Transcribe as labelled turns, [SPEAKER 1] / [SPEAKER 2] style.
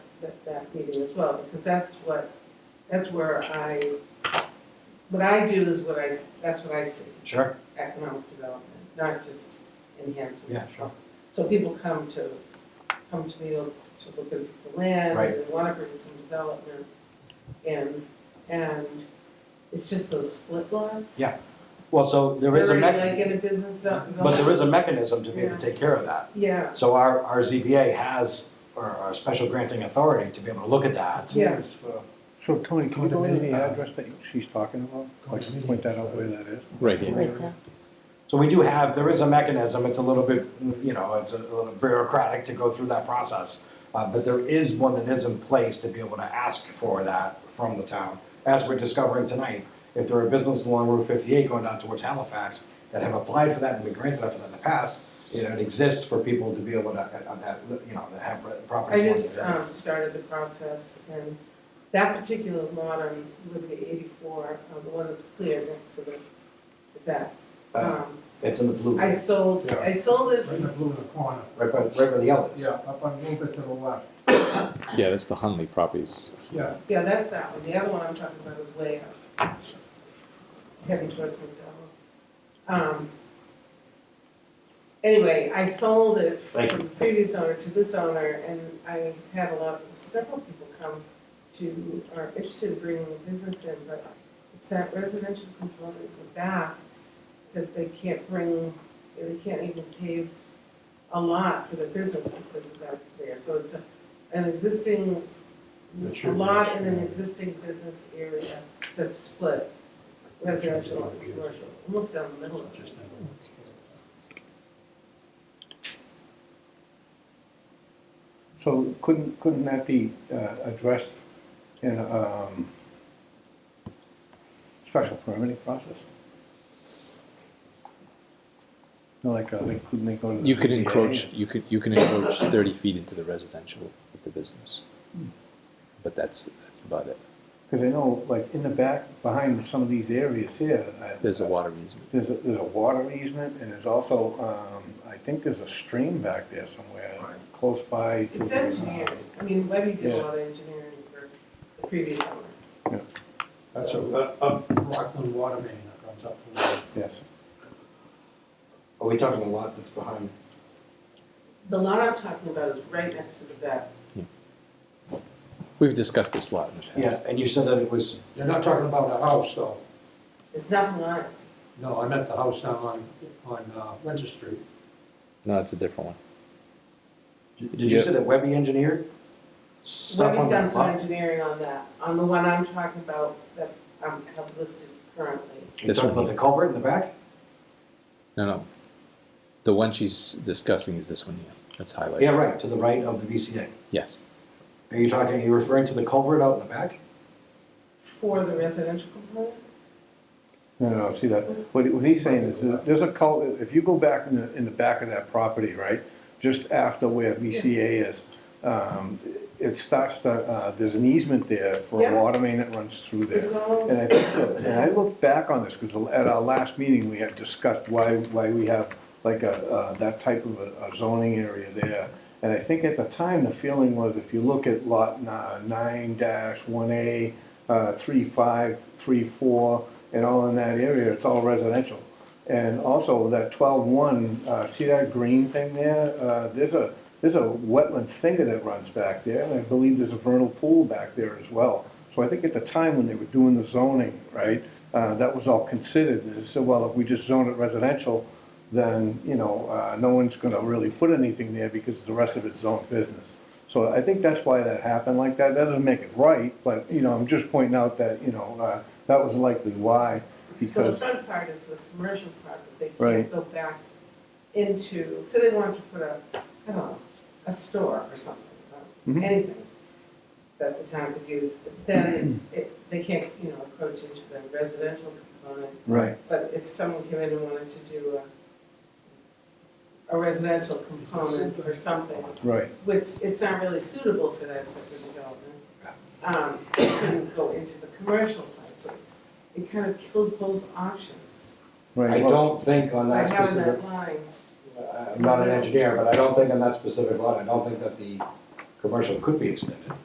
[SPEAKER 1] that, that meeting as well, because that's what, that's where I, what I do is what I, that's what I see,
[SPEAKER 2] Sure.
[SPEAKER 1] economic development, not just enhancing.
[SPEAKER 2] Yeah, sure.
[SPEAKER 1] So people come to, come to me to look at a piece of land, and
[SPEAKER 2] Right.
[SPEAKER 1] they want to bring some development, and, and it's just those split lots.
[SPEAKER 2] Yeah, Well, so there is a
[SPEAKER 1] They're
[SPEAKER 2] mech,
[SPEAKER 1] like in a business zone.
[SPEAKER 2] but there is a mechanism to be able
[SPEAKER 1] Yeah.
[SPEAKER 2] to take care of that.
[SPEAKER 1] Yeah,
[SPEAKER 2] So our, our ZBA has, or our special granting authority to be able to look at that.
[SPEAKER 1] yeah,
[SPEAKER 3] So Tony, can you go into the
[SPEAKER 2] Condominium.
[SPEAKER 3] address that she's talking about? Like, point that out where that is?
[SPEAKER 4] Right here.
[SPEAKER 2] So we do have, there is a mechanism, it's a little bit, you know, it's a little bureaucratic to go through that process. Uh, but there is one that is in place to be able to ask for that from the town, as we're discovering tonight. If there are businesses along Route fifty-eight going down towards Halifax that have applied for that and been granted that for that in the past, you know, it exists for people to be able to, uh, uh, that, you know, that have
[SPEAKER 1] I
[SPEAKER 2] properties. along
[SPEAKER 1] just
[SPEAKER 2] there.
[SPEAKER 1] um, started the process, and that particular lot on Liberty eighty-four, uh, the one that's clear next to the, to that.
[SPEAKER 2] Uh,
[SPEAKER 1] um,
[SPEAKER 2] It's in the blue,
[SPEAKER 1] I
[SPEAKER 2] right
[SPEAKER 1] sold,
[SPEAKER 5] Yeah.
[SPEAKER 1] I sold it,
[SPEAKER 5] Right in the blue in the corner,
[SPEAKER 2] by, right by the yellow.
[SPEAKER 5] yeah, up on, a little bit to the left,
[SPEAKER 4] Yeah, that's the Hunley properties.
[SPEAKER 5] yeah.
[SPEAKER 1] yeah, that's that one, the other one I'm talking about is way out, heading towards McDonald's. Um, Anyway, I sold it
[SPEAKER 2] Thank
[SPEAKER 1] from the previous owner to this owner, and I had a lot, several people come to, are interested in bringing a business in, but it's that residential component in the back that they can't bring, they can't even pave a lot for their business because of that's there. So it's a- an existing, a
[SPEAKER 2] Mature
[SPEAKER 1] lot in
[SPEAKER 2] business.
[SPEAKER 1] an existing business area that's split, residential and commercial, almost down the middle of it.
[SPEAKER 3] So couldn't, couldn't that be uh, addressed in a um, special permitting process? You know, Like, uh, they- couldn't they go to the...
[SPEAKER 4] You could
[SPEAKER 3] ZBA?
[SPEAKER 4] encroach, you could, you can encroach thirty feet into the residential with the business. But that's, that's about it.
[SPEAKER 3] Because I know, like, in the back, behind some of these areas here... I-
[SPEAKER 4] There's a water easement.
[SPEAKER 3] There's a, there's a water easement, and there's also, um, I think there's a stream back there somewhere,
[SPEAKER 2] Right.
[SPEAKER 3] close by. to
[SPEAKER 1] It's
[SPEAKER 3] the, uh,
[SPEAKER 1] engineering, I mean, Webby did a
[SPEAKER 3] Yeah.
[SPEAKER 1] lot of engineering for the previous owner.
[SPEAKER 5] That's a, a Rockland water main that comes up from there.
[SPEAKER 3] Yes,
[SPEAKER 2] Are we talking a lot that's behind?
[SPEAKER 1] The lot I'm talking about is right next to the vet.
[SPEAKER 4] We've discussed this lot in the past.
[SPEAKER 2] Yeah, and you said that it was,
[SPEAKER 5] You're not talking about the house, though.
[SPEAKER 1] It's not the lot,
[SPEAKER 5] No, I meant the house down on, on uh, Winter Street.
[SPEAKER 4] No, it's a different one.
[SPEAKER 2] did you say that Webby engineered? Stuff on
[SPEAKER 1] Webby's done
[SPEAKER 2] that
[SPEAKER 1] some
[SPEAKER 2] lot?
[SPEAKER 1] engineering on that, on the one I'm talking about that I have listed currently.
[SPEAKER 2] You talking about the culvert in the back?
[SPEAKER 4] No, no. The one she's discussing is this one here. That's highlighted.
[SPEAKER 2] Yeah, right, to the right of the VCA.
[SPEAKER 4] Yes.
[SPEAKER 2] Are you talking, are you referring to the culvert out in the back?
[SPEAKER 1] For the residential component?
[SPEAKER 3] no, no, see that, what, he- what he's saying is, that there's a cul, if you go back in the, in the back of that property, right? Just after where BCA is, um, it starts to, uh, there's an easement there for a
[SPEAKER 1] Yeah.
[SPEAKER 3] water main that runs through there.
[SPEAKER 1] It's all-
[SPEAKER 3] And I think that, and I look back on this, because at our last meeting, we had discussed why, why we have like a, uh, that type of a a zoning area there. And I think at the time, the feeling was if you look at lot nine dash one A, uh, three five, three four, and all in that area, it's all residential. And also that twelve one, uh, see that green thing there? Uh, there's a, there's a wetland finger that runs back there, and I believe there's a vernal pool back there as well. So I think at the time when they were doing the zoning, right, uh, that was all considered, and they said, well, if we just zone it residential, then, you know, uh, no one's gonna really put anything there because the rest of it's zoned business. So I think that's why that happened like that, that doesn't make it right, but, you know, I'm just pointing out that, you know, uh, that was likely why,
[SPEAKER 1] So the
[SPEAKER 3] because,
[SPEAKER 1] front part is the commercial part, but they can't
[SPEAKER 3] Right.
[SPEAKER 1] go back into, so they wanted to put a, I don't know, a store or something, uh,
[SPEAKER 3] Mhm.
[SPEAKER 1] anything that the town could use, but then it, they can't, you know, approach into the residential component.
[SPEAKER 3] right,
[SPEAKER 1] But if someone came in and wanted to do a, a residential component or something,
[SPEAKER 3] right.
[SPEAKER 1] which it's not really suitable for that type of development, um, it couldn't go into the commercial part, so it's, it kind of kills both options.
[SPEAKER 3] Right,
[SPEAKER 2] I
[SPEAKER 3] well,
[SPEAKER 2] don't think on
[SPEAKER 1] I
[SPEAKER 2] that
[SPEAKER 1] have
[SPEAKER 2] specific,
[SPEAKER 1] that line,
[SPEAKER 2] I'm not an engineer, but I don't think on that specific lot, I don't think that the commercial could be extended.